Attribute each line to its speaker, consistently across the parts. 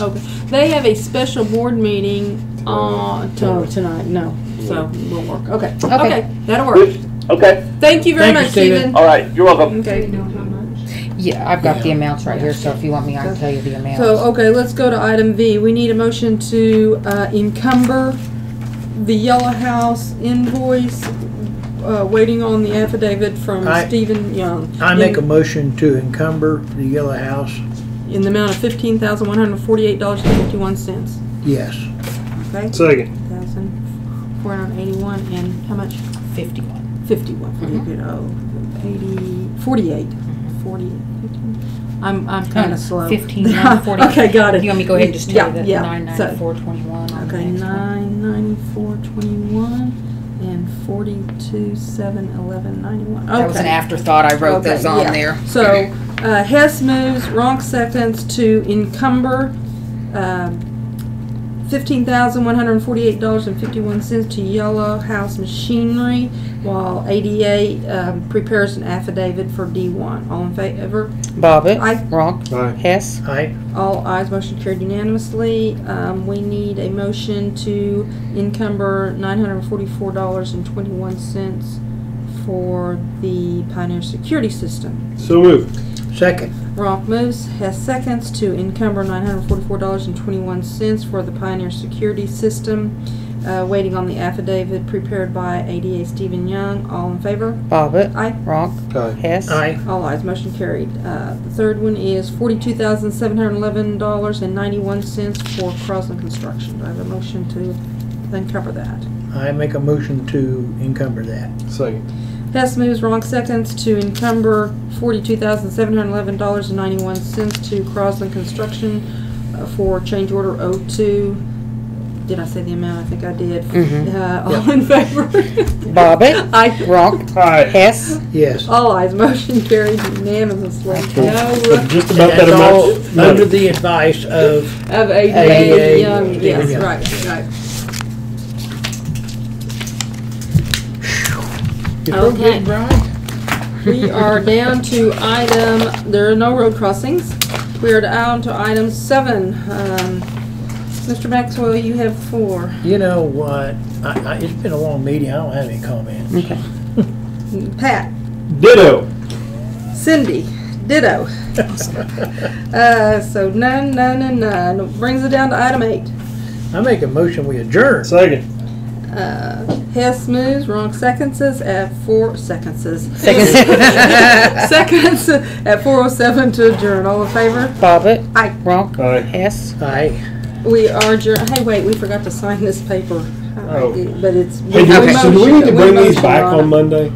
Speaker 1: Okay. They have a special board meeting on
Speaker 2: No,
Speaker 1: to,
Speaker 2: tonight, no.
Speaker 1: so we'll work. Okay.
Speaker 2: Okay.
Speaker 1: that'll work.
Speaker 3: Okay,
Speaker 1: Thank you very
Speaker 2: Thank you,
Speaker 1: much, Stephen.
Speaker 2: Stephen.
Speaker 3: all right, you're welcome.
Speaker 1: Okay.
Speaker 4: Yeah, I've got the amounts right here, so if you want me, I can tell you the amounts.
Speaker 1: So, okay, let's go to item V. We need a motion to uh, encumber the Yellow House invoice, uh, waiting on the affidavit from
Speaker 5: I-
Speaker 1: Stephen Young.
Speaker 5: I make a
Speaker 1: in-
Speaker 5: motion to encumber the Yellow House,
Speaker 1: In the amount of fifteen thousand one hundred forty-eight dollars and fifty-one cents,
Speaker 5: yes.
Speaker 1: okay?
Speaker 6: Second.
Speaker 1: Thousand four hundred eighty-one and how much?
Speaker 4: Fifty-one.
Speaker 1: Fifty-one, forty,
Speaker 4: Mhm.
Speaker 1: good, oh, eighty, forty-eight, forty, fifty. I'm, I'm kinda slow.
Speaker 4: Fifteen, nine forty.
Speaker 1: Okay, got it.
Speaker 4: You want me to go ahead and just tell you the
Speaker 1: Yeah, yeah.
Speaker 4: nine
Speaker 1: So-
Speaker 4: ninety-four twenty-one on the
Speaker 1: Okay,
Speaker 4: next one?
Speaker 1: nine ninety-four twenty-one and forty-two, seven, eleven, ninety-one.
Speaker 4: That was an
Speaker 1: Okay.
Speaker 4: afterthought, I wrote
Speaker 1: Okay,
Speaker 4: those on
Speaker 1: yeah.
Speaker 4: there.
Speaker 1: So, uh, Hess moves, Ronk seconds to encumber, um, fifteen thousand one hundred and forty-eight dollars and fifty-one cents to Yellow House Machinery while ADA, um, prepares an affidavit for D one. All in favor?
Speaker 4: Bobbit.
Speaker 1: Aye.
Speaker 4: Ronk.
Speaker 6: Aye.
Speaker 4: Hess.
Speaker 5: I,
Speaker 1: All ayes, motion carried unanimously. Um, we need a motion to encumber nine hundred and forty-four dollars and twenty-one cents for the Pioneer Security System.
Speaker 6: So moved.
Speaker 5: second,
Speaker 1: Ronk moves, Hess seconds to encumber nine hundred and forty-four dollars and twenty-one cents for the Pioneer Security System. Uh, waiting on the affidavit prepared by ADA Stephen Young. All in favor?
Speaker 4: Bobbit.
Speaker 1: Aye.
Speaker 4: Ronk.
Speaker 6: Aye.
Speaker 4: Hess.
Speaker 5: I,
Speaker 1: All ayes, motion carried. Uh, The third one is forty-two thousand seven hundred eleven dollars and ninety-one cents for Crossland Construction. Do I have a motion to then cover that?
Speaker 5: I make a motion to encumber that.
Speaker 6: Second.
Speaker 1: Hess moves, Ronk seconds to encumber forty-two thousand seven hundred eleven dollars and ninety-one cents to Crossland Construction uh, for change order O two. Did I say the amount? I think I did.
Speaker 4: Mhm.
Speaker 1: Uh, All in favor?
Speaker 4: Bobbit.
Speaker 1: Aye.
Speaker 4: Ronk.
Speaker 6: Aye.
Speaker 4: Hess.
Speaker 5: Yes.
Speaker 1: All ayes, motion carried unanimously. No
Speaker 6: But just about that
Speaker 5: That's all
Speaker 6: amount.
Speaker 5: under the advice of,
Speaker 1: Of ADA,
Speaker 5: ADA,
Speaker 1: Young,
Speaker 5: yeah.
Speaker 1: yes,
Speaker 5: Yeah.
Speaker 1: right, right.
Speaker 5: you feel good,
Speaker 1: Okay.
Speaker 5: Brian?
Speaker 1: We are down to item, there are no road crossings. We are down to item seven. Um, Mr. Maxwell, you have four.
Speaker 5: You know what, I, I, it's been a long meeting, I don't have any comments.
Speaker 4: Okay.
Speaker 1: Pat,
Speaker 6: Ditto.
Speaker 1: Cindy, ditto. Uh, so none, none, and none. Brings it down to item eight.
Speaker 5: I make a motion, we adjourn.
Speaker 6: Second.
Speaker 1: Uh, Hess moves, Ronk seconds at four seconds. Seconds at four oh seven to adjourn. All in favor?
Speaker 4: Bobbit.
Speaker 1: Aye.
Speaker 4: Ronk.
Speaker 6: Aye.
Speaker 4: Hess.
Speaker 5: I,
Speaker 1: We are, adjour- hey, wait, we forgot to sign this paper.
Speaker 6: Oh.
Speaker 1: But it's.
Speaker 6: Hey, do,
Speaker 1: we
Speaker 6: so do we
Speaker 1: motioned-
Speaker 6: need to bring these
Speaker 1: motioned
Speaker 6: back
Speaker 1: on it.
Speaker 6: on Monday?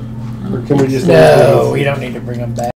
Speaker 6: Or can we just?
Speaker 5: no, you don't need to bring them back.